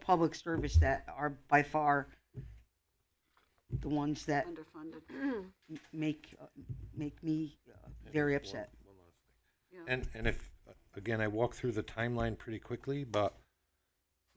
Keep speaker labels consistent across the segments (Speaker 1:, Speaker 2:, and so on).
Speaker 1: public service that are by far the ones that
Speaker 2: underfunded.
Speaker 1: m- make, uh, make me uh, very upset.
Speaker 3: And, and if, again, I walk through the timeline pretty quickly, but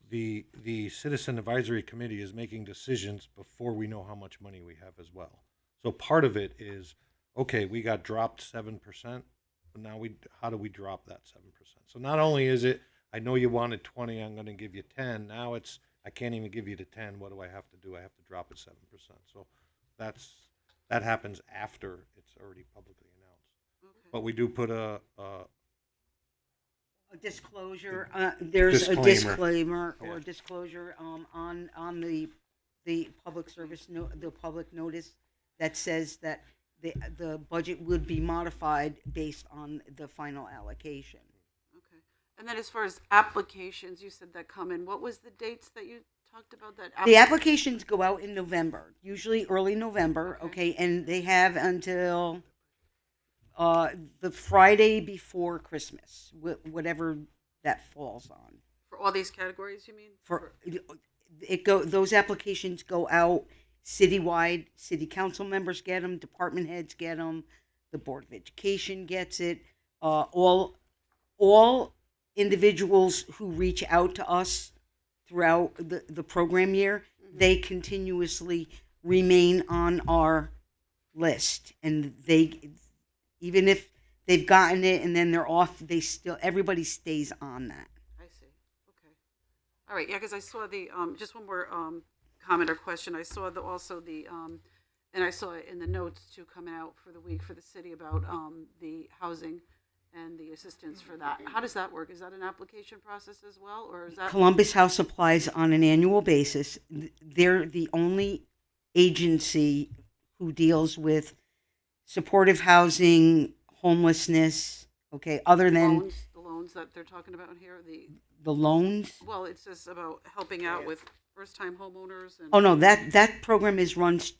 Speaker 3: the, the Citizen Advisory Committee is making decisions before we know how much money we have as well. So part of it is, okay, we got dropped seven percent, but now we, how do we drop that seven percent? So not only is it, I know you wanted twenty, I'm gonna give you ten, now it's, I can't even give you the ten, what do I have to do? I have to drop it seven percent. So that's, that happens after it's already publicly announced. But we do put a, a
Speaker 1: A disclosure, uh, there's a
Speaker 3: Disclaimer.
Speaker 1: disclaimer or
Speaker 3: Yeah.
Speaker 1: disclosure, um, on, on the, the public service, no, the public notice that says that the, the budget would be modified based on the final allocation.
Speaker 2: Okay. And then as far as applications, you said that come in. What was the dates that you talked about that?
Speaker 1: The
Speaker 2: app-
Speaker 1: applications go out in November, usually early November, okay, and they have until uh, the Friday before Christmas, wh- whatever that falls on.
Speaker 2: For all these categories, you mean?
Speaker 1: For it go, those applications go out citywide. City council members get them, department heads get them, the board of education gets it. Uh, all, all individuals who reach out to us throughout the, the program year, they continuously remain on our list, and they, even if they've gotten it and then they're off, they still everybody stays on that.
Speaker 2: I see. Okay. All right. Yeah, because I saw the, um, just one more um, comment or question. I saw the, also the, um, and I saw it in the notes too coming out for the week for the city about um, the housing and the assistance for that. How does that work? Is that an application process as well, or is that?
Speaker 1: Columbus House applies on an annual basis. Th- They're the only agency who deals with supportive housing, homelessness, okay, other than
Speaker 2: loans, the loans that they're talking about here, the
Speaker 1: the loans.
Speaker 2: well, it says about helping out with first-time homeowners and
Speaker 1: Oh, no, that, that program is run s-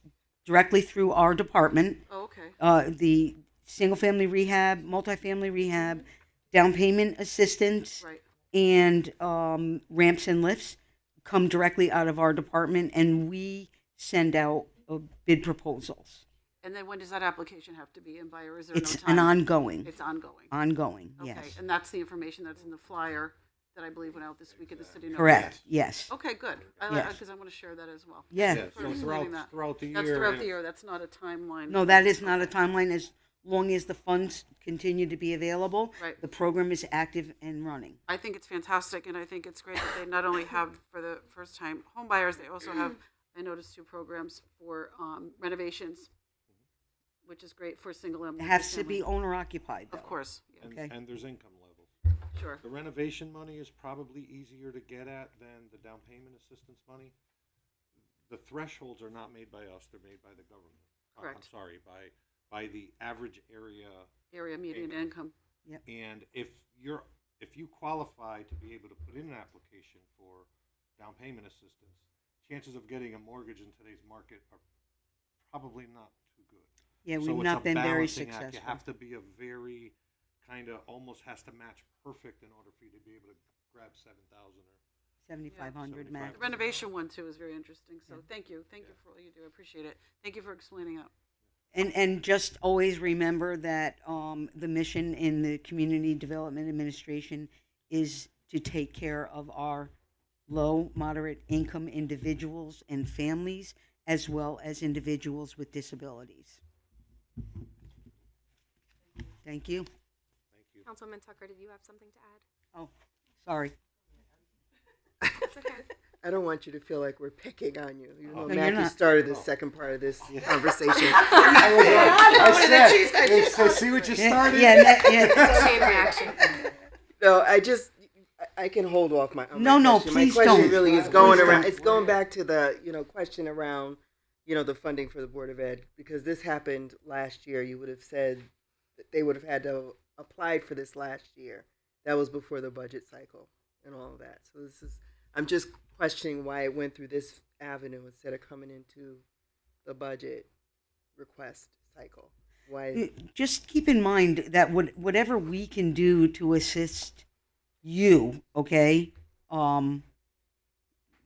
Speaker 1: directly through our department.
Speaker 2: Oh, okay,
Speaker 1: Uh, the single family rehab, multifamily rehab, down payment assistance.
Speaker 2: right.
Speaker 1: and um, ramps and lifts come directly out of our department, and we send out uh, bid proposals.
Speaker 2: And then when does that application have to be in by, or is there
Speaker 1: It's
Speaker 2: no time?
Speaker 1: an ongoing,
Speaker 2: It's ongoing.
Speaker 1: ongoing.
Speaker 2: Okay,
Speaker 1: Yes,
Speaker 2: and that's the information that's in the flyer that I believe went out this week at the city. notice.
Speaker 1: correct. Yes,
Speaker 2: Okay, good. I,
Speaker 1: Yes.
Speaker 2: because I want to share that as well.
Speaker 1: yeah.
Speaker 2: Sort
Speaker 3: Yeah,
Speaker 2: of
Speaker 3: so throughout,
Speaker 2: explaining that.
Speaker 3: throughout the year.
Speaker 2: That's throughout
Speaker 3: and-
Speaker 2: the year. That's not a timeline.
Speaker 1: No, that is not a timeline. As long as the funds continue to be available,
Speaker 2: Right.
Speaker 1: the program is active and running.
Speaker 2: I think it's fantastic, and I think it's great that they not only have for the first time home buyers, they also have, I noticed, two programs for um, renovations, which is great for single and
Speaker 1: It has to
Speaker 2: multifamily.
Speaker 1: be owner occupied, though.
Speaker 2: Of course, yeah,
Speaker 3: and-
Speaker 1: Okay.
Speaker 3: And there's income levels.
Speaker 2: sure.
Speaker 3: The renovation money is probably easier to get at than the down payment assistance money. The thresholds are not made by us, they're made by the government. Uh, I'm
Speaker 2: Correct.
Speaker 3: sorry, by, by the average area
Speaker 2: Area median income.
Speaker 3: And if you're, if you qualify to be able to put in an application for down payment assistance, chances of getting a mortgage in today's market are probably not too good.
Speaker 1: Yeah,
Speaker 3: So
Speaker 1: we've
Speaker 3: it's a
Speaker 1: not been very
Speaker 3: balancing act.
Speaker 1: successful.
Speaker 3: You have to be a very kind of almost has to match perfect in order for you to be able to grab seven thousand or
Speaker 1: Seventy-five hundred max.
Speaker 2: The renovation one too is very interesting, so thank you. Thank you for all you do. I appreciate it. Thank you for explaining it.
Speaker 1: And, and just always remember that um, the mission in the Community Development Administration is to take care of our low, moderate income individuals and families, as well as individuals with disabilities. Thank you.
Speaker 4: Councilwoman Tucker, did you have something to add?
Speaker 1: Oh, sorry.
Speaker 4: That's okay.
Speaker 5: I don't want you to feel like we're picking on you. You know,
Speaker 1: Oh. No, you're
Speaker 5: Matthew
Speaker 1: not.
Speaker 5: started the second part of this conversation. I said, I said,
Speaker 3: see what you
Speaker 1: Yeah, yeah, yeah.
Speaker 4: Chain reaction.
Speaker 5: no, I just, I- I can hold off my. on my
Speaker 1: No, no,
Speaker 5: question.
Speaker 1: please
Speaker 5: My
Speaker 1: don't.
Speaker 5: question really is going
Speaker 1: Please
Speaker 5: around,
Speaker 1: don't.
Speaker 5: it's going back to the, you know, question around, you know, the funding for the Board of Ed, because this happened last year. You would have said that they would have had to apply for this last year. That was before the budget cycle and all of that. So this is, I'm just questioning why it went through this avenue instead of coming into the budget request cycle. Why?
Speaker 1: just keep in mind that what, whatever we can do to assist you, okay, um,